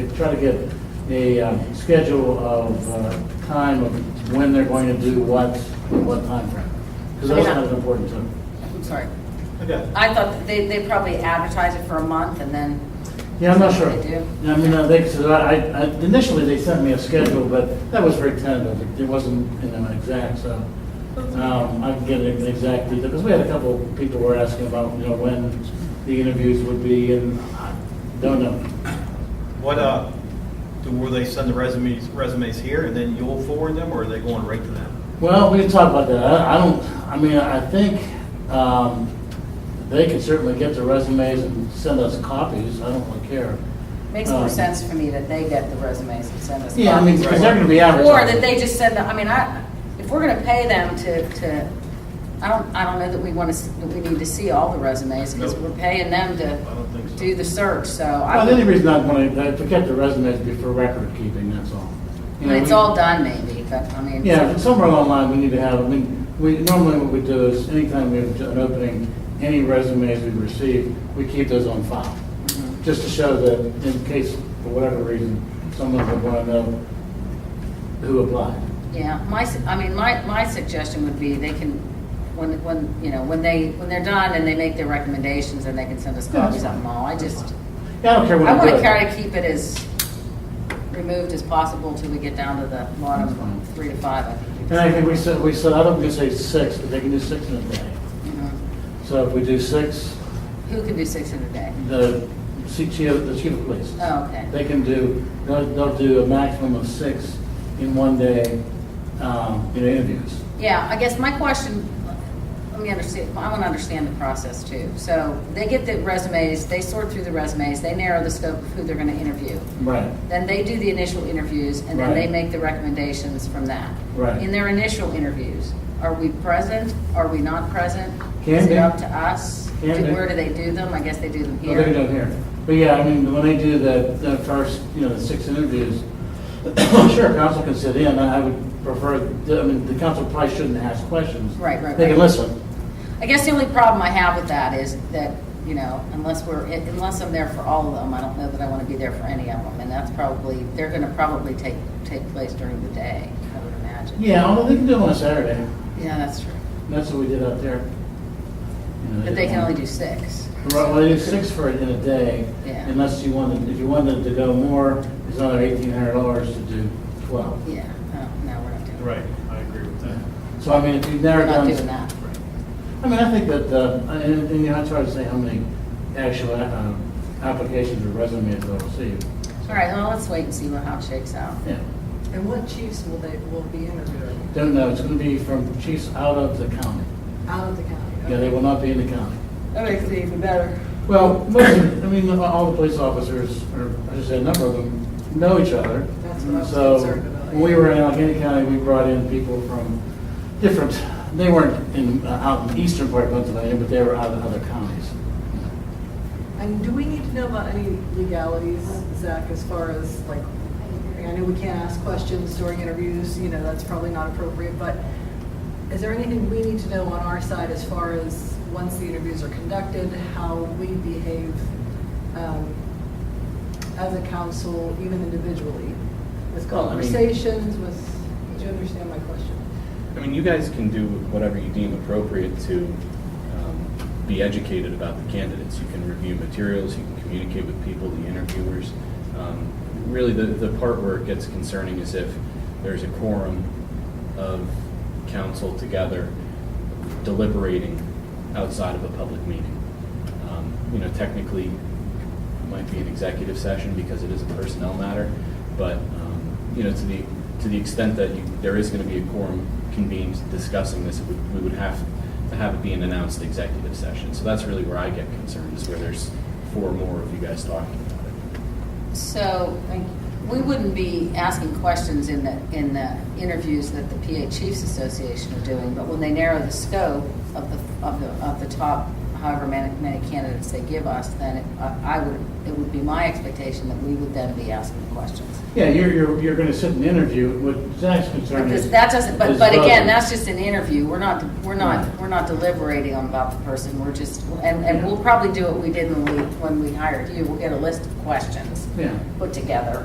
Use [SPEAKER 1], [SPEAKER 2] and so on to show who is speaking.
[SPEAKER 1] Try to get a um, schedule of uh, time of when they're going to do what, in what timeframe. Because that's
[SPEAKER 2] Yeah.
[SPEAKER 1] not as important to them.
[SPEAKER 2] I'm sorry.
[SPEAKER 3] Okay.
[SPEAKER 2] I thought that they, they probably advertise it for a month and then,
[SPEAKER 1] Yeah, I'm not sure.
[SPEAKER 2] They do?
[SPEAKER 1] Yeah, I mean, uh, they, so I, I- initially, they sent me a schedule, but that was very tentative. It- It wasn't, you know, exact, so um, I can get an exact detail. Because we had a couple people were asking about, you know, when the interviews would be, and I don't know.
[SPEAKER 3] What, uh, do, will they send the resumes, resumes here and then you'll forward them or are they going right to them?
[SPEAKER 1] Well, we can talk about that. I I don't, I mean, I think um, they can certainly get the resumes and send us copies. I don't really care.
[SPEAKER 2] makes more
[SPEAKER 1] Um,
[SPEAKER 2] sense for me that they get the resumes and send us.
[SPEAKER 1] Yeah, I mean,
[SPEAKER 2] copies.
[SPEAKER 1] because they're going to be advertising.
[SPEAKER 2] Or that they just send, the- I mean, I, if we're gonna pay them to, to, I don't, I don't know that we wanna, s- that we need to see all the resumes, because
[SPEAKER 3] Nope.
[SPEAKER 2] we're paying them
[SPEAKER 3] I
[SPEAKER 2] to
[SPEAKER 3] don't think so.
[SPEAKER 2] do the search, so.
[SPEAKER 1] Well,
[SPEAKER 2] I
[SPEAKER 1] the only
[SPEAKER 2] would-
[SPEAKER 1] reason I want to, to get the resumes would be for record keeping, that's all.
[SPEAKER 2] I
[SPEAKER 1] You
[SPEAKER 2] mean,
[SPEAKER 1] know,
[SPEAKER 2] It's
[SPEAKER 1] we-
[SPEAKER 2] all done maybe, but, I mean.
[SPEAKER 1] Yeah, somewhere along the line, we need to have, I mean, we, normally what we do is anytime we have an opening, any resumes we receive, we keep those on file.
[SPEAKER 2] Mhm.
[SPEAKER 1] Just to show that in case, for whatever reason, someone would want to know who applied.
[SPEAKER 2] Yeah, my, su- I mean, my, my suggestion would be they can, when, when, you know, when they, when they're done and they make their recommendations and they can send us
[SPEAKER 1] Yeah,
[SPEAKER 2] copies of
[SPEAKER 1] that's
[SPEAKER 2] them all, I just,
[SPEAKER 1] Yeah, I don't care what
[SPEAKER 2] I
[SPEAKER 1] I do.
[SPEAKER 2] wanna try to keep it as removed as possible till we get down to the
[SPEAKER 1] That's fine.
[SPEAKER 2] bottom three to five, I think.
[SPEAKER 1] And I think we said, we said, I don't think we say six, but they can do six in a day.
[SPEAKER 2] Mhm.
[SPEAKER 1] So if we do six,
[SPEAKER 2] Who can do six in a day?
[SPEAKER 1] the CTO, the chief of police.
[SPEAKER 2] Oh, okay.
[SPEAKER 1] They can do, they'll, they'll do a maximum of six in one day, um, in interviews.
[SPEAKER 2] Yeah, I guess my question, let me understand, I want to understand the process too. So they get the resumes, they sort through the resumes, they narrow the scope of who they're gonna interview.
[SPEAKER 1] Right.
[SPEAKER 2] Then they do the initial interviews, and then they
[SPEAKER 1] Right.
[SPEAKER 2] make the recommendations from that.
[SPEAKER 1] Right.
[SPEAKER 2] In their initial interviews, are we present, are we not present?
[SPEAKER 1] Can
[SPEAKER 2] Is
[SPEAKER 1] be.
[SPEAKER 2] it up to us?
[SPEAKER 1] Can
[SPEAKER 2] Do-
[SPEAKER 1] be.
[SPEAKER 2] Where do they do them? I guess they do them
[SPEAKER 1] Well,
[SPEAKER 2] here.
[SPEAKER 1] they can do it here. But yeah, I mean, when they do the, the first, you know, the six interviews, sure, council can sit in. I I would prefer, I mean, the council probably shouldn't ask questions.
[SPEAKER 2] Right, right,
[SPEAKER 1] They can
[SPEAKER 2] right.
[SPEAKER 1] listen.
[SPEAKER 2] I guess the only problem I have with that is that, you know, unless we're, unless I'm there for all of them, I don't know that I want to be there for any of them. And that's probably, they're going to probably take, take place during the day, I would imagine.
[SPEAKER 1] Yeah, although they can do it on a Saturday.
[SPEAKER 2] Yeah, that's true.
[SPEAKER 1] That's what we did out there. You know,
[SPEAKER 2] But they can
[SPEAKER 1] did-
[SPEAKER 2] only do six.
[SPEAKER 1] Right, well, it's six for it in a day,
[SPEAKER 2] Yeah.
[SPEAKER 1] unless you wanted, if you wanted to go more, it's another eighteen hundred dollars to do twelve.
[SPEAKER 2] Yeah, no, no, we're not doing that.
[SPEAKER 3] Right, I agree with that.
[SPEAKER 1] So I mean, if you've never
[SPEAKER 2] We're not
[SPEAKER 1] done.
[SPEAKER 2] doing that.
[SPEAKER 1] I mean, I think that, uh, and, and you know, it's hard to say how many actual, um, applications or resumes they'll receive.
[SPEAKER 2] All right, well, let's wait and see what, how it shakes out.
[SPEAKER 1] Yeah,
[SPEAKER 4] And what chiefs will they, will be interviewing
[SPEAKER 1] don't know, it's gonna be from chiefs out of the county.
[SPEAKER 4] out of the county?
[SPEAKER 1] Yeah, they will not be in the county.
[SPEAKER 4] That makes it even better.
[SPEAKER 1] Well, most, of- I mean, all the police officers, or I should say a number of them, know each other.
[SPEAKER 4] That's what I was
[SPEAKER 1] So,
[SPEAKER 4] concerned about.
[SPEAKER 1] when we were in Allegheny County, we brought in people from different, they weren't in, uh, out in the eastern part of Pennsylvania, but they were out of other counties.
[SPEAKER 4] And do we need to know about any legalities, Zach, as far as like, I know we can't ask questions during interviews, you know, that's probably not appropriate, but is there anything we need to know on our side as far as, once the interviews are conducted, how we behave um, as a council, even individually, with
[SPEAKER 1] Well, I mean-
[SPEAKER 4] conversations, with, do you understand my question?
[SPEAKER 5] I mean, you guys can do whatever you deem appropriate to um, be educated about the candidates. You can review materials, you can communicate with people, the interviewers. Um, Really, the, the part where it gets concerning is if there's a quorum of council together deliberating outside of a public meeting. Um, You know, technically, it might be an executive session because it is a personnel matter, but, um, you know, to the, to the extent that you- there is going to be a quorum convened discussing this, it would- we would have to have it be an announced executive session. So that's really where I get concerned, is where there's four or more of you guys talking about it.
[SPEAKER 2] So we wouldn't be asking questions in the, in the interviews that the PA Chiefs Association are doing, but when they narrow the scope of the, of the, of the top however many, many candidates they give us, then it, I I would, it would be my expectation that we would then be asking questions.
[SPEAKER 1] Yeah, you're, you're, you're gonna sit and interview, what Zach's concerned
[SPEAKER 2] Because
[SPEAKER 1] is.
[SPEAKER 2] that doesn't, but,
[SPEAKER 1] is
[SPEAKER 2] but again,
[SPEAKER 1] voting.
[SPEAKER 2] that's just an interview, we're not, we're not, we're not deliberating on about the person, we're just, and, and we'll probably do what we did when we, when we hired you, we'll get a list of questions
[SPEAKER 1] Yeah.
[SPEAKER 2] put together,